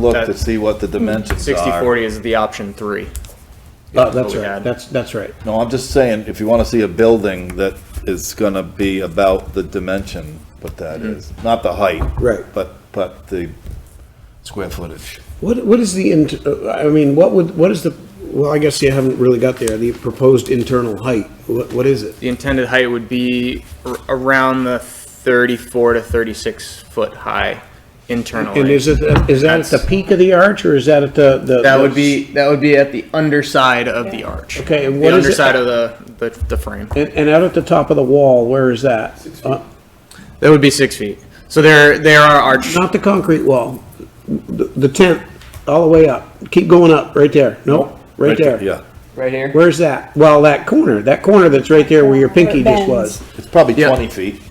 look to That- see what the dimensions are. 60 40 is the option three. Uh, that's we right, had. that's, that's right. No, I'm just saying, if you want to see a building that is going to be about the dimension, what that Mm-hmm. is, not the height. Right. But, but the square footage. What, what is the, int- uh, I mean, what would, what is the, well, I guess you haven't really got there, the proposed internal height, what, what is it? The intended height would be ar- around the 34 to 36 foot high internally. And is it, uh, is that at the That's- peak of the arch, or is that at the? the- that would be that would be at the underside of the arch. Okay, and the what is it- underside of the, the the frame. And, and out at the top of the wall, where is that? Uh, That would be six feet. So there there are arch. Not the concrete wall, the the tent, all the way up, keep going up, right there, nope, right there. Yeah. Right here. Where's that? Well, that corner, that corner that's right there where your pinky just bends. was. It's probably Yeah. 20 feet.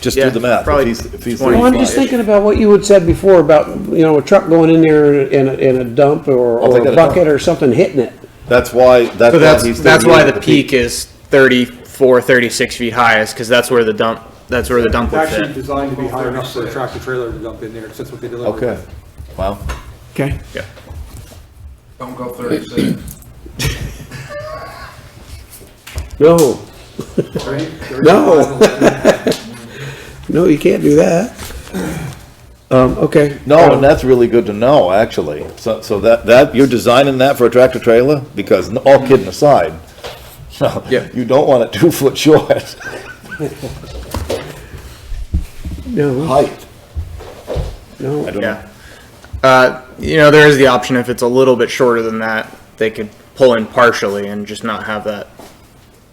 Just do Yeah, the math. If probably he's- if he's 20. Well, I'm 35. just thinking about what you had said before about, you know, a truck going in there and, a- and a dump or, Oh, they or got a a dump. bucket or something hitting it. That's why, that's why So that's he's. that's thinking why of the peak is 34 36 feet high is because that's where the dump that's where the dump would It's actually fit. designed to be high enough for a tractor trailer to dump in there, 'cause that's what they deliver. Okay. Wow. Okay. Yeah. Don't go thirty-six. No, Right? No. no, you can't do that. Um, okay. No, and Um, that's really good to know, actually. So, so that, that, you're designing that for a tractor trailer? Because, n- all kidding aside, Yeah. you don't want it two foot short No, height. I no, don't know. Yeah. Uh, you know, there is the option if it's a little bit shorter than that, they could pull in partially and just not have that,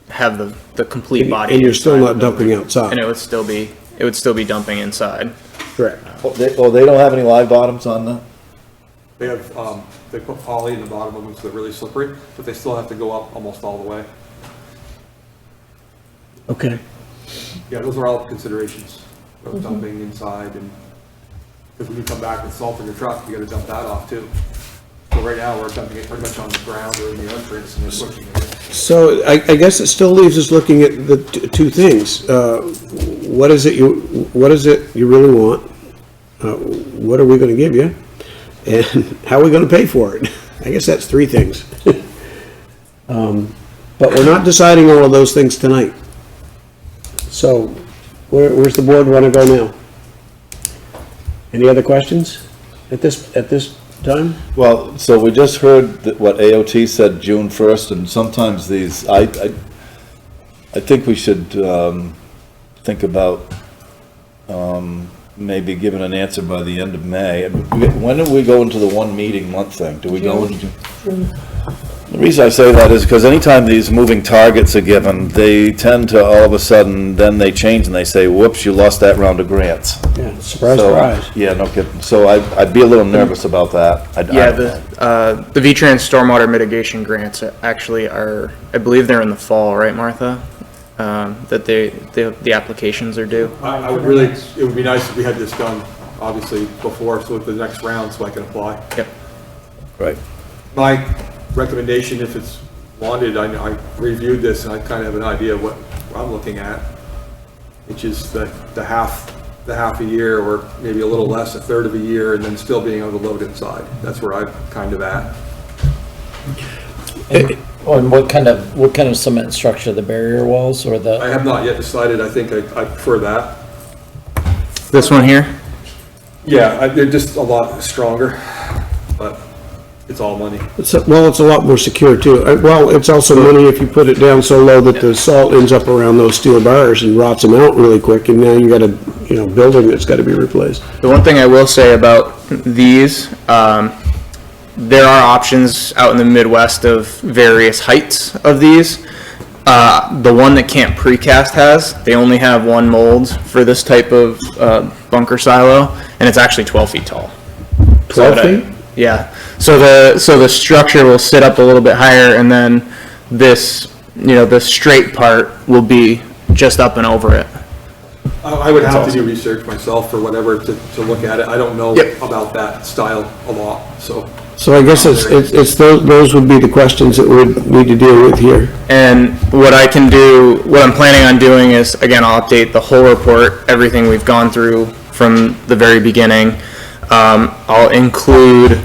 have the, the complete body. and you're still inside not the building. dumping And it outside. would still be, it would still be dumping inside. Correct. Oh, they, oh, they don't have any live bottoms on that? They have, um, they put poly in the bottom of them, so they're really slippery, but they still have to go up almost all the way. Okay. Yeah, those are all considerations of dumping inside and, because when you come back with salt in your truck, you gotta dump that off too. So right now, we're dumping it pretty much on the ground or in the entrance and then pushing it. So I, I guess it still leaves us looking at the t- two things. Uh, what is it you, what is it you really want? Uh, what are we gonna give you? And how are we gonna pay for it? I guess that's three things. Um, but we're not deciding all of those things tonight. So where, where's the board wanna go now? Any other questions at this, at this time? Well, so we just heard that what AOT said June first, and sometimes these, I, I, I think we should, um, think about, um, maybe giving an answer by the end of May. And we- When do we go into the one meeting month thing? Do we go into? The reason I say that is because anytime these moving targets are given, they tend to all of a sudden, then they change and they say, whoops, you lost that round of grants. Yeah, surprise, So, surprise. Yeah, no kidding. So I, I'd be a little nervous about that. I- I Yeah, don't know. the, uh, the V-Trans stormwater mitigation grants actually are, I believe they're in the fall, right, Martha? Um, that they, the, the applications are due. I, I would really, it would be nice if we had this done, obviously, before, so at the next round, so I can apply. Yep. Right. My recommendation, if it's wanted, I, I reviewed this and I kind of have an idea of what I'm looking at, which is the, the half, the half a year or maybe a little less, a third of a year, and then still being able to load inside. That's where I'm kind of at. Oh, And what kind of, what kind of cement structure, the barrier walls or I the, have not yet decided. I think I, I prefer that. This one here? Yeah, I- they're just a lot stronger, but it's all money. It's a- Well, it's a lot more secure too. Uh, Well, it's also money if you put it down so low that the salt ends up around those steel bars and rots them out really quick, and now you got a, you know, building that's gotta be replaced. The one thing I will say about these, um, there are options out in the Midwest of various heights of these. Uh, the one that Camp Precast has, they only have one mold for this type of, uh, bunker silo, and it's actually twelve feet tall. So Twelve that I- uh, feet? Yeah, so the, so the structure will sit up a little bit higher, and then this, you know, the straight part will be just up and over it. I I would have to do research myself or whatever to, to look at it. I don't know Yep. about that style a lot, so. So I guess it's, it's, it's those, those would be the questions that we need to deal with here. And what I can do, what I'm planning on doing is, again, I'll update the whole report, everything we've gone through from the very beginning. Um, Um, I'll include